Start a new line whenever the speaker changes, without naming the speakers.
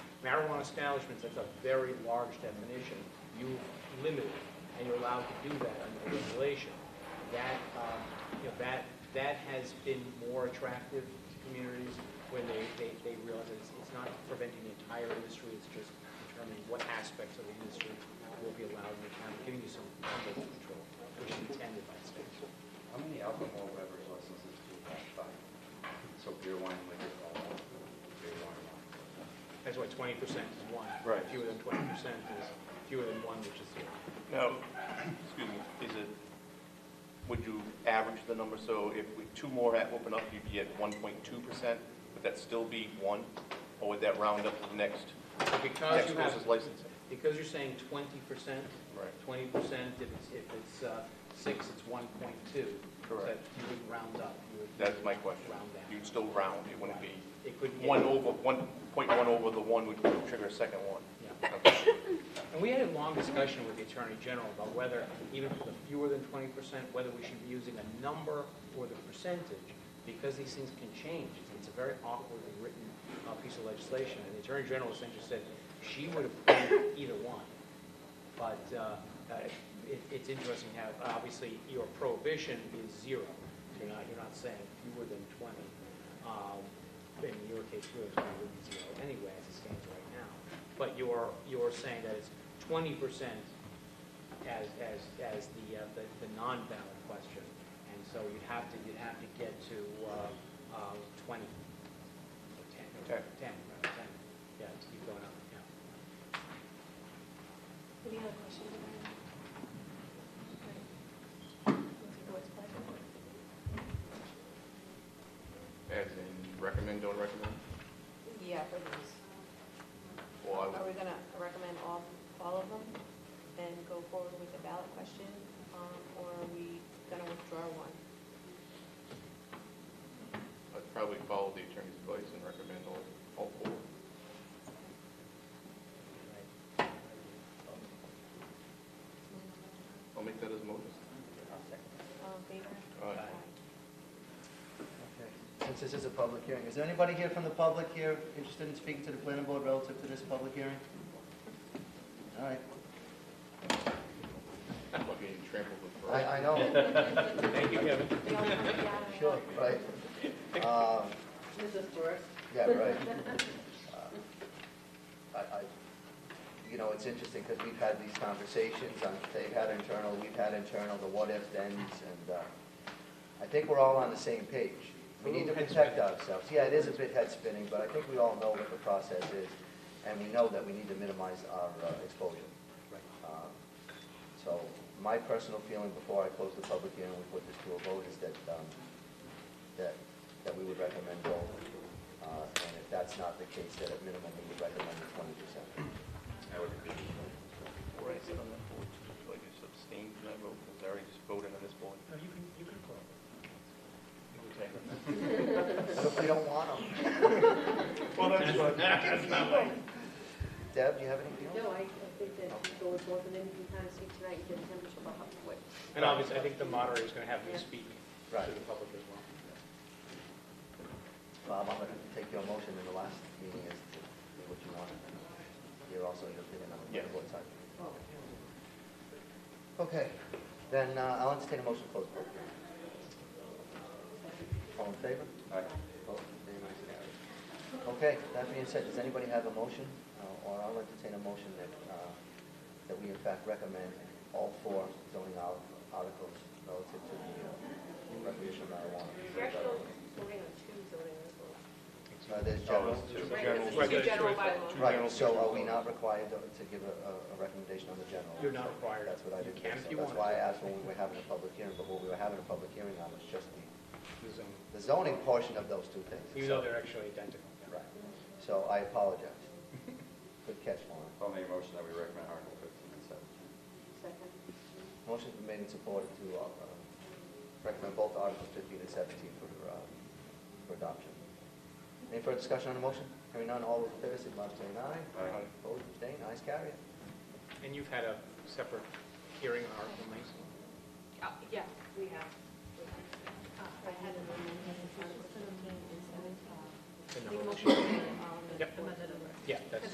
marijuana establishments, that's a very large definition. You limit it, and you're allowed to do that under the regulation. That, um, you know, that, that has been more attractive to communities when they, they, they realize that it's, it's not preventing the entire industry, it's just determining what aspects of the industry will be allowed in the town, giving you some level of control, which is intended by the state.
How many alcohol beverage licenses do you have? Five. So beer, wine, liquor, all that. Beer, wine, wine.
That's why twenty percent is one.
Right.
Fewer than twenty percent is fewer than one, which is zero.
Now, excuse me, is it, would you average the number, so if we- two more had open up, you'd be at 1.2%? Would that still be one, or would that round up to the next,
Because
next
you have,
closest licensing?
because you're saying twenty percent,
Right.
twenty percent, if it's, if it's uh, six, it's one point two.
Correct.
You would round up. you would-
That's my question.
Round down.
You'd still round, it wouldn't be
It could. it-
one over, 1.1 over the one would trigger a second one.
yeah.
Okay.
And we had a long discussion with the Attorney General about whether, even for the fewer than twenty percent, whether we should be using a number or the percentage, because these things can change. It's a very awkwardly written uh, piece of legislation, and the Attorney General essentially said she would approve either one. But uh, uh, it- it's interesting how, obviously, your prohibition is zero. You're not, you're not saying fewer than 20. Um, In your case, fewer than 20 would be zero anyway, as it stands right now. But you're, you're saying that it's 20% as, as, as the, uh, the the non-ballot question. And so you'd have to, you'd have to get to uh, um, 20, or 10, or
Okay.
10, or 10. Yeah, to keep going up, yeah.
Any other questions? Voice pleasure.
As in, recommend, don't recommend?
Yeah, for these.
Or I
Are
would-
we gonna recommend all, all of them and go forward with the ballot question? um, Or are we gonna withdraw one?
I'd probably follow the attorney's advice and recommend all, all four. I'll make that as a motion.
All in favor?
Aye.
Okay, Since this is a public hearing, is there anybody here from the public here interested in speaking to the planning board relative to this public hearing? All right,
I'm getting trampled with.
I, I know,
Thank you, Kevin.
We all come down and-
sure, right. Um,
This is worse.
Yeah, right. Uh, I, I, you know, it's interesting, because we've had these conversations, um, they've had internal, we've had internal, the what-if thens, and, uh, I think we're all on the same page. We need to protect ourselves. Yeah, it is a bit head-spinning, but I think we all know what the process is, and we know that we need to minimize our uh, exposure. Um, So, my personal feeling before I close the public hearing, we put this to a vote, is that, um, that, that we would recommend both. Uh, And if that's not the case, then at minimum, we would recommend the twenty percent.
I would agree. Before I sit on that board, do I just abstain from that vote, because I already just voted on this board?
No, you can, you can call.
What if we don't want them?
Well, that's what, that's not right.
Deb, do you have anything else?
No, I, I think that you go with both, and then you can kind of see tonight, you get a temperature about how quick.
And obviously, I think the moderator is going to have me
Yeah.
speak to
Right.
the public as well.
Bob, I'm gonna take your motion in the last meeting as to what you want. You're also your opinion on the
Yes.
board side. Okay, then uh, I'll entertain a motion to close the public hearing. All in favor? Aye. Opposed, Nay, ayes have it. Okay, that being said, does anybody have a motion? Uh, Or I'll entertain a motion that, uh, that we in fact recommend all four zoning al- articles relative to the uh, recreational marijuana.
You're actually voting on two zoning articles.
Uh, There's
Oh,
general,
Right, 'cause it's two general bylaws.
Right, so are we not required to to give a, a a recommendation on the general?
You're not required.
That's what I
You
did.
can if you
That's
want.
why I asked when we were having a public hearing, but what we were having a public hearing on was just the,
The zoning,
the zoning portion of those two things.
Even though they're actually identical.
Right, so I apologize. Good catch, Lauren.
I'll make a motion that we recommend Article 15 and 17.
Second.
Motion's been made and supported to uh, recommend both Articles 15 and 17 for, uh, for adoption. Any further discussion on the motion? Hearing none, all those in favor, signify by saying aye.
Aye.
Opposed, abstained, ayes, carry it.
And you've had a separate hearing on Article 19.
Uh, Yeah, we have. Uh, I had an amendment in Article 17 and 17.
The
The
number.
motion, um,
Yep.
amended over.
Yeah, that's.